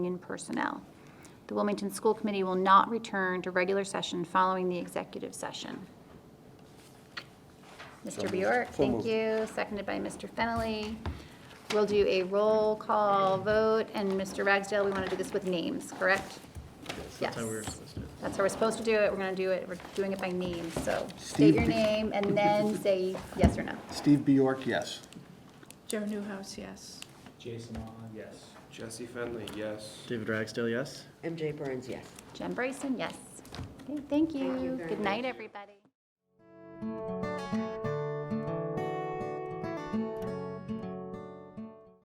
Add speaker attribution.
Speaker 1: union personnel. The Wilmington School Committee will not return to regular session following the executive session. Mr. Bjork, thank you, seconded by Mr. Fennelly. We'll do a roll call vote, and Mr. Ragsdale, we want to do this with names, correct? Yes. That's how we're supposed to do it, we're going to do it, we're doing it by name, so state
Speaker 2: Steve
Speaker 1: your
Speaker 2: B-
Speaker 1: name and then say yes or no.
Speaker 2: Steve Bjork, yes.
Speaker 3: Joe Newhouse, yes.
Speaker 4: Jason Monahan? Yes.
Speaker 5: Jesse Fenley, yes.
Speaker 6: David Ragsdale, yes?
Speaker 7: MJ Burns, yes.
Speaker 1: Jen Bryson, yes. Okay, Thank you,
Speaker 7: very
Speaker 1: good night, everybody.